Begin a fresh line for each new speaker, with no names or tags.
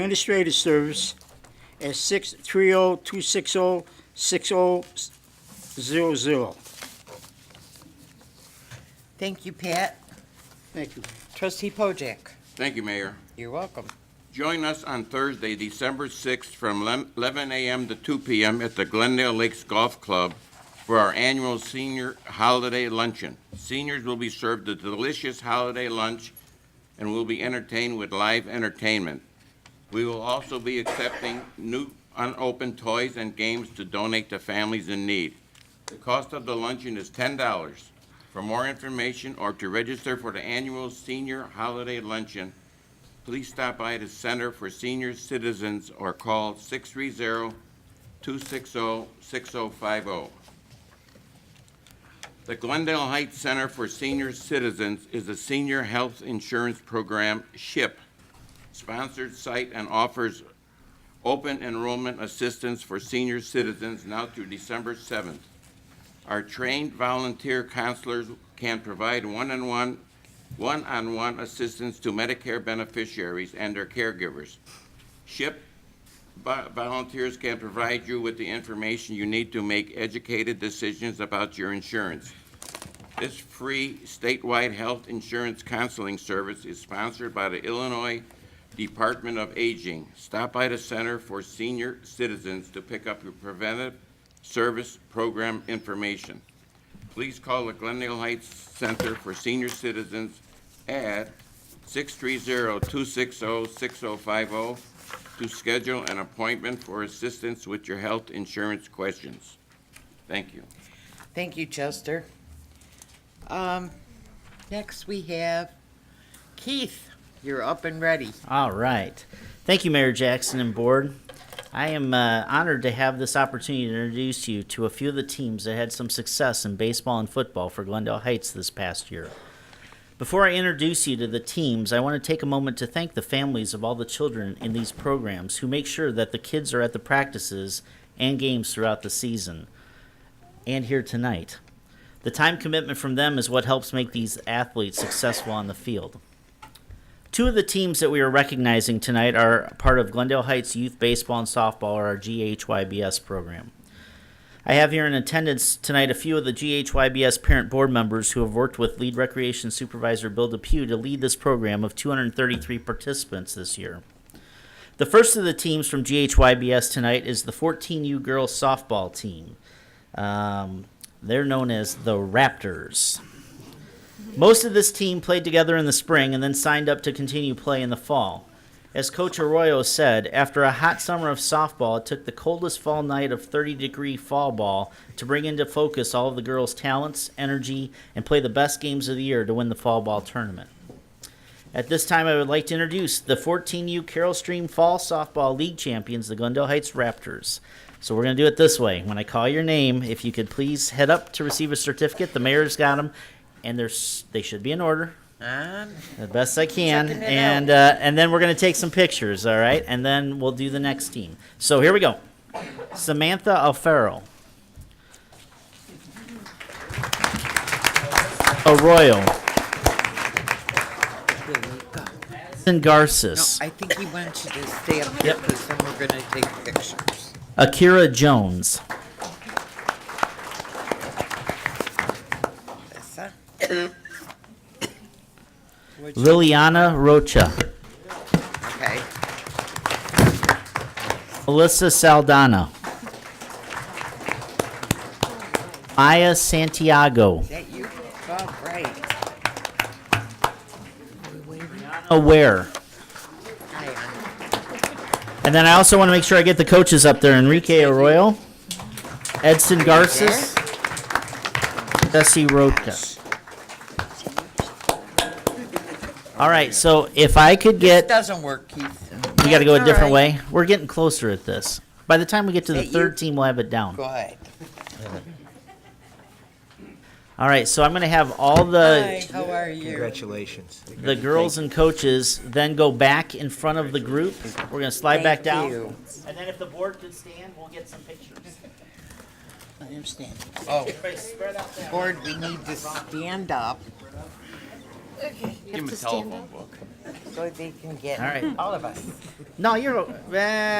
Administrative Service at 630-260-6000.
Thank you, Pat.
Thank you.
Trustee Pojek.
Thank you, Mayor.
You're welcome.
Join us on Thursday, December 6th, from lem- 11 a.m. to 2 p.m. at the Glendale Lakes Golf Club for our annual senior holiday luncheon. Seniors will be served a delicious holiday lunch and will be entertained with live entertainment. We will also be accepting new unopened toys and games to donate to families in need. The cost of the luncheon is $10. For more information or to register for the annual senior holiday luncheon, please stop by the Center for Senior Citizens or call 630-260-6050. The Glendale Heights Center for Senior Citizens is a senior health insurance program, SHIP, sponsored site and offers open enrollment assistance for senior citizens now through December 7th. Our trained volunteer counselors can provide one-on-one one-on-one assistance to Medicare beneficiaries and their caregivers. SHIP vo- volunteers can provide you with the information you need to make educated decisions about your insurance. This free statewide health insurance counseling service is sponsored by the Illinois Department of Aging. Stop by the Center for Senior Citizens to pick up your preventive service program information please call the Glendale Heights Center for Senior Citizens at 630-260-6050 to schedule an appointment for assistance with your health insurance questions. Thank you.
Thank you, Chester. Um, next we have Keith. You're up and ready.
All right. Thank you, Mayor Jackson and Board. I am uh, honored to have this opportunity to introduce you to a few of the teams that had some success in baseball and football for Glendale Heights this past year. Before I introduce you to the teams, I want to take a moment to thank the families of all the children in these programs who make sure that the kids are at the practices and games throughout the season and here tonight. The time commitment from them is what helps make these athletes successful on the field. Two of the teams that we are recognizing tonight are part of Glendale Heights Youth Baseball and Softball, or our GHYBS program. I have here in attendance tonight a few of the GHYBS parent board members who have worked with lead recreation supervisor Bill Depew to lead this program of 233 participants this year. The first of the teams from GHYBS tonight is the 14U girls softball team. Um, they're known as the Raptors. Most of this team played together in the spring and then signed up to continue play in the fall. As Coach Arroyo said, after a hot summer of softball, it took the coldest fall night of 30 degree fall ball to bring into focus all of the girls' talents, energy, and play the best games of the year to win the fall ball tournament. At this time, I would like to introduce the 14U Carroll Stream Fall Softball League champions, the Glendale Heights Raptors. So we're going to do it this way. When I call your name, if you could please head up to receive a certificate, the mayor's got them, and there's, they should be in order
Um,
the best I can,
Checking it
and uh, and then we're gonna take some pictures, all right, and then we'll do the next team. So here we go, Samantha Alfaro, Arroyo,
here we go.
and
No,
Garces,
I think he wants you to stay up here
Yep.
because then we're gonna take pictures.
Akira Jones,
Yes, huh? Would you-
Liliana Rocha,
Okay,
Melissa Saldana, Maya Santiago,
is that you? oh, All right.
Aware.
Hi, Anna.
And then I also want to make sure I get the coaches up there. Enrique Arroyo, Edson Garces, Jesse Roca. All right, so if I could
It
get,
doesn't work, Keith.
we got to go a
That's all
different
right.
way. We're getting closer at this. By the time we get to the
Hey, you-
third team, we'll have it down.
Go ahead.
All right, so I'm going to have all the
Hi, how are you?
Congratulations.
the girls and coaches then go back in front of the group. We're going to slide
Thank
back down,
you.
and then if the board could stand, we'll get some pictures.
I understand.
Oh,
Everybody spread out that way.
Board, we need to stand up.
Give him a telephone book.
so they can get
All right.
all of us.
No, you're. Uh,